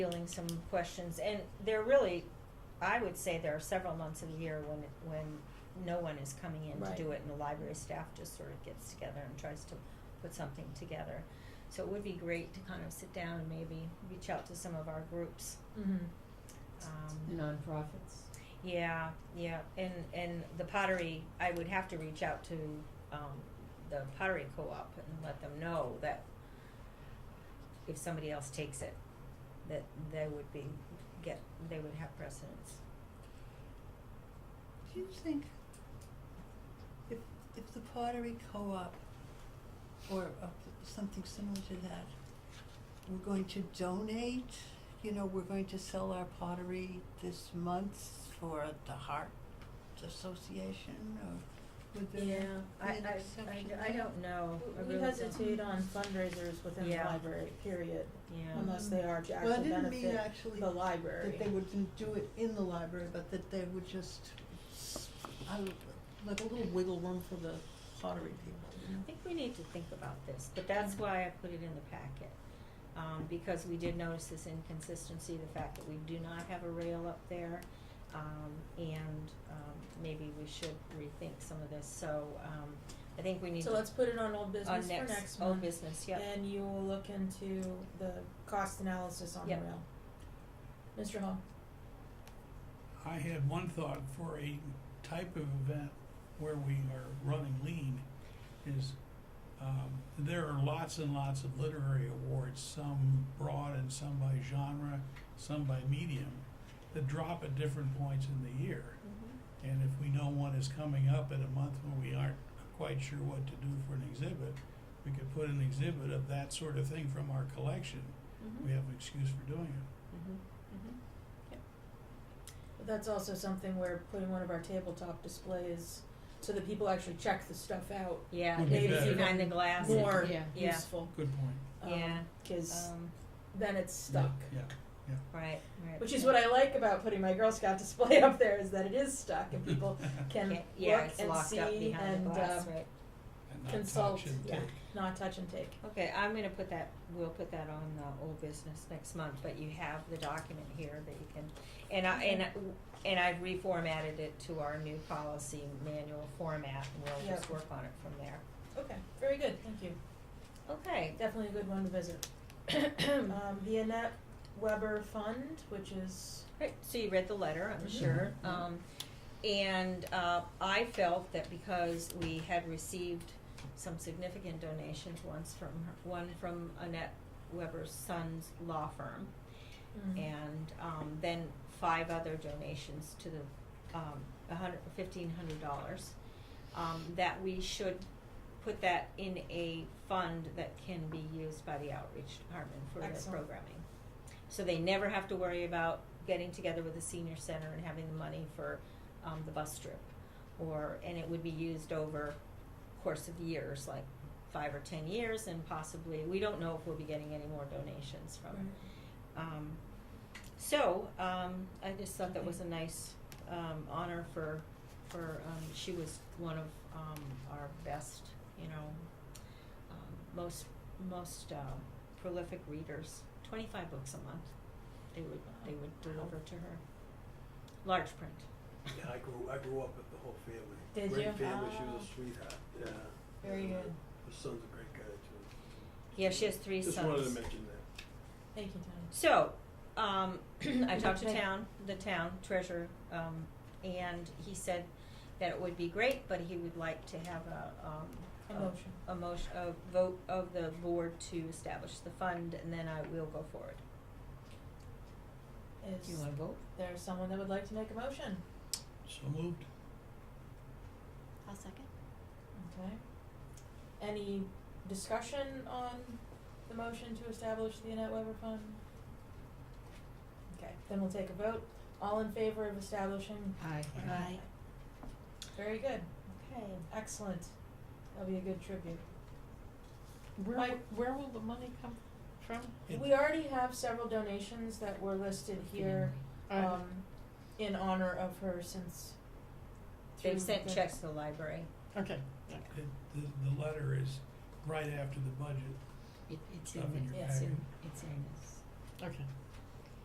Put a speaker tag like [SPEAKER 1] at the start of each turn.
[SPEAKER 1] feeling some questions, and there really, I would say there are several months of the year when, when no one is coming in to
[SPEAKER 2] Right.
[SPEAKER 1] do it, and the library staff just sort of gets together and tries to put something together. So it would be great to kind of sit down and maybe reach out to some of our groups,
[SPEAKER 3] Mm-hmm.
[SPEAKER 1] um,
[SPEAKER 3] Nonprofits.
[SPEAKER 1] yeah, yeah, and, and the pottery, I would have to reach out to, um, the pottery co-op and let them know that if somebody else takes it, that they would be, get, they would have precedence.
[SPEAKER 4] Do you think if, if the pottery co-op or uh, something similar to that, we're going to donate, you know, we're going to sell our pottery this month for the Heart Association or would there
[SPEAKER 3] Yeah,
[SPEAKER 4] be
[SPEAKER 1] I,
[SPEAKER 4] an
[SPEAKER 1] I,
[SPEAKER 4] exception
[SPEAKER 1] I, I
[SPEAKER 4] there?
[SPEAKER 1] don't know. Oh, I
[SPEAKER 3] We
[SPEAKER 1] really don't.
[SPEAKER 3] hesitate on fundraisers within the
[SPEAKER 1] Yeah.
[SPEAKER 3] library, period,
[SPEAKER 1] Yeah,
[SPEAKER 3] unless they are to
[SPEAKER 4] Well, I
[SPEAKER 3] actually
[SPEAKER 4] didn't mean
[SPEAKER 3] benefit
[SPEAKER 4] actually
[SPEAKER 3] the library.
[SPEAKER 4] that they wouldn't do it in the library, but that they would just, I, would- like a little wiggle room for the pottery people, you know?
[SPEAKER 1] I think we need to think about this, but that's why I put it in the packet. Um, because we did notice this inconsistency, the fact that we do not have a rail up there. Um, and, um, maybe we should rethink some of this, so, um, I think we need to.
[SPEAKER 3] So let's put it on old
[SPEAKER 1] on
[SPEAKER 3] business for next
[SPEAKER 1] old
[SPEAKER 3] month,
[SPEAKER 1] business, yep.
[SPEAKER 3] and you will look into the cost analysis on the
[SPEAKER 1] Yep.
[SPEAKER 3] rail. Mr. Hall,
[SPEAKER 5] I had one thought for a type of event where we are running lean is um, there are lots and lots of literary awards, some broad and some by genre, some by medium, that drop at different points in the year. And if we know one is coming up in a month when we aren't quite sure what to do for an exhibit, we could put an exhibit of that sort of thing from our collection.
[SPEAKER 3] Mm-hmm.
[SPEAKER 1] Mhm.
[SPEAKER 5] We have an excuse for doing it.
[SPEAKER 1] Mhm.
[SPEAKER 6] Mm-hmm.
[SPEAKER 1] Mhm.
[SPEAKER 3] but that's also something where putting one of our tabletop displays, so that people actually check the stuff out,
[SPEAKER 1] Yeah,
[SPEAKER 5] Would be
[SPEAKER 1] maybe
[SPEAKER 5] better.
[SPEAKER 1] behind the glass. and-
[SPEAKER 3] more
[SPEAKER 6] Yeah.
[SPEAKER 1] Yeah.
[SPEAKER 3] useful,
[SPEAKER 5] Good point.
[SPEAKER 1] Yeah.
[SPEAKER 3] um, cause
[SPEAKER 1] Um,
[SPEAKER 3] then it's stuck.
[SPEAKER 5] Yeah.
[SPEAKER 1] right, right.
[SPEAKER 3] Which is what I like about putting my Girl Scout display up there is that it is stuck and people can
[SPEAKER 1] Okay, Yeah,
[SPEAKER 3] look
[SPEAKER 1] it's
[SPEAKER 3] and
[SPEAKER 1] locked up
[SPEAKER 3] see
[SPEAKER 1] behind
[SPEAKER 3] and
[SPEAKER 1] the glass,
[SPEAKER 3] uh,
[SPEAKER 1] right.
[SPEAKER 5] And not
[SPEAKER 3] consult.
[SPEAKER 5] touch and
[SPEAKER 3] yeah,
[SPEAKER 5] take.
[SPEAKER 3] not touch and take.
[SPEAKER 1] Okay, I'm gonna put that, we'll put that on the old business next month, but you have the document here that you can, and I, and, I- and I've reformatted it to our new policy manual format, and we'll just
[SPEAKER 3] Yeah.
[SPEAKER 1] work on it from there.
[SPEAKER 3] Okay, very good. Thank you.
[SPEAKER 1] Okay,
[SPEAKER 3] Definitely a good one to visit. um, the Annette Weber Fund, which is
[SPEAKER 1] Right, so you read the letter, I'm
[SPEAKER 3] Mhm.
[SPEAKER 1] sure. Um, and, uh, I felt that because we had received some significant donations once from, her- one from Annette Weber's son's law firm,
[SPEAKER 3] mm,
[SPEAKER 1] and, um, then five other donations to the, um, a hundred, fifteen hundred dollars, um, that we should put that in a fund that can be used by the outreach department for their
[SPEAKER 3] Excellent.
[SPEAKER 1] programming. So they never have to worry about getting together with the senior center and having the money for, um, the bus trip. Or, and it would be used over course of years, like five or ten years, and possibly, we don't know if we'll be getting any more donations from it. Um, so, um, I just thought that was a nice, um, honor for, for, um, she was one of, um, our best, you know, um, most, most, um, prolific readers, twenty-five books a month, they would, they would deliver to her. Large print.
[SPEAKER 7] Yeah, I grew I grew up with the whole family.
[SPEAKER 3] Did
[SPEAKER 7] great
[SPEAKER 3] you?
[SPEAKER 7] family. She was
[SPEAKER 3] Ah.
[SPEAKER 7] a
[SPEAKER 1] Oh.
[SPEAKER 7] sweetheart. Yeah.
[SPEAKER 3] Very
[SPEAKER 7] And, uh,
[SPEAKER 3] good.
[SPEAKER 7] Her son's a great guy too.
[SPEAKER 1] Yeah, she has three
[SPEAKER 7] Just wanted to
[SPEAKER 1] sons.
[SPEAKER 7] mention that.
[SPEAKER 3] thank you, Tony.
[SPEAKER 1] So, um, I talked to
[SPEAKER 3] Okay.
[SPEAKER 1] town, the town treasurer, um, and he said that it would be great, but he would like to have a, um,
[SPEAKER 3] A motion.
[SPEAKER 1] A motion, a vote of the board to establish the fund, and then I will go forward.
[SPEAKER 3] Is
[SPEAKER 6] Do you wanna vote?
[SPEAKER 3] there someone that would like to make a motion?
[SPEAKER 5] So moved.
[SPEAKER 6] I'll second.
[SPEAKER 3] Okay. Any discussion on the motion to establish the Annette Weber Fund? Okay, then we'll take a vote. All in favor of establishing?
[SPEAKER 6] Aye.
[SPEAKER 3] Aye. Very good.
[SPEAKER 1] Okay.
[SPEAKER 3] Excellent. That'll be a good tribute.
[SPEAKER 6] Where,
[SPEAKER 3] Mike?
[SPEAKER 6] where will the money come from?
[SPEAKER 5] It-
[SPEAKER 3] We already have several donations that were listed here, um, in honor of her since. through
[SPEAKER 1] They've sent
[SPEAKER 3] the-
[SPEAKER 1] checks to the library.
[SPEAKER 6] Okay.
[SPEAKER 5] It, the, the letter is right after the budget.
[SPEAKER 6] It, it's
[SPEAKER 5] Nothing
[SPEAKER 6] in there,
[SPEAKER 5] to
[SPEAKER 3] Yes.
[SPEAKER 5] add.
[SPEAKER 6] it's in this. Okay.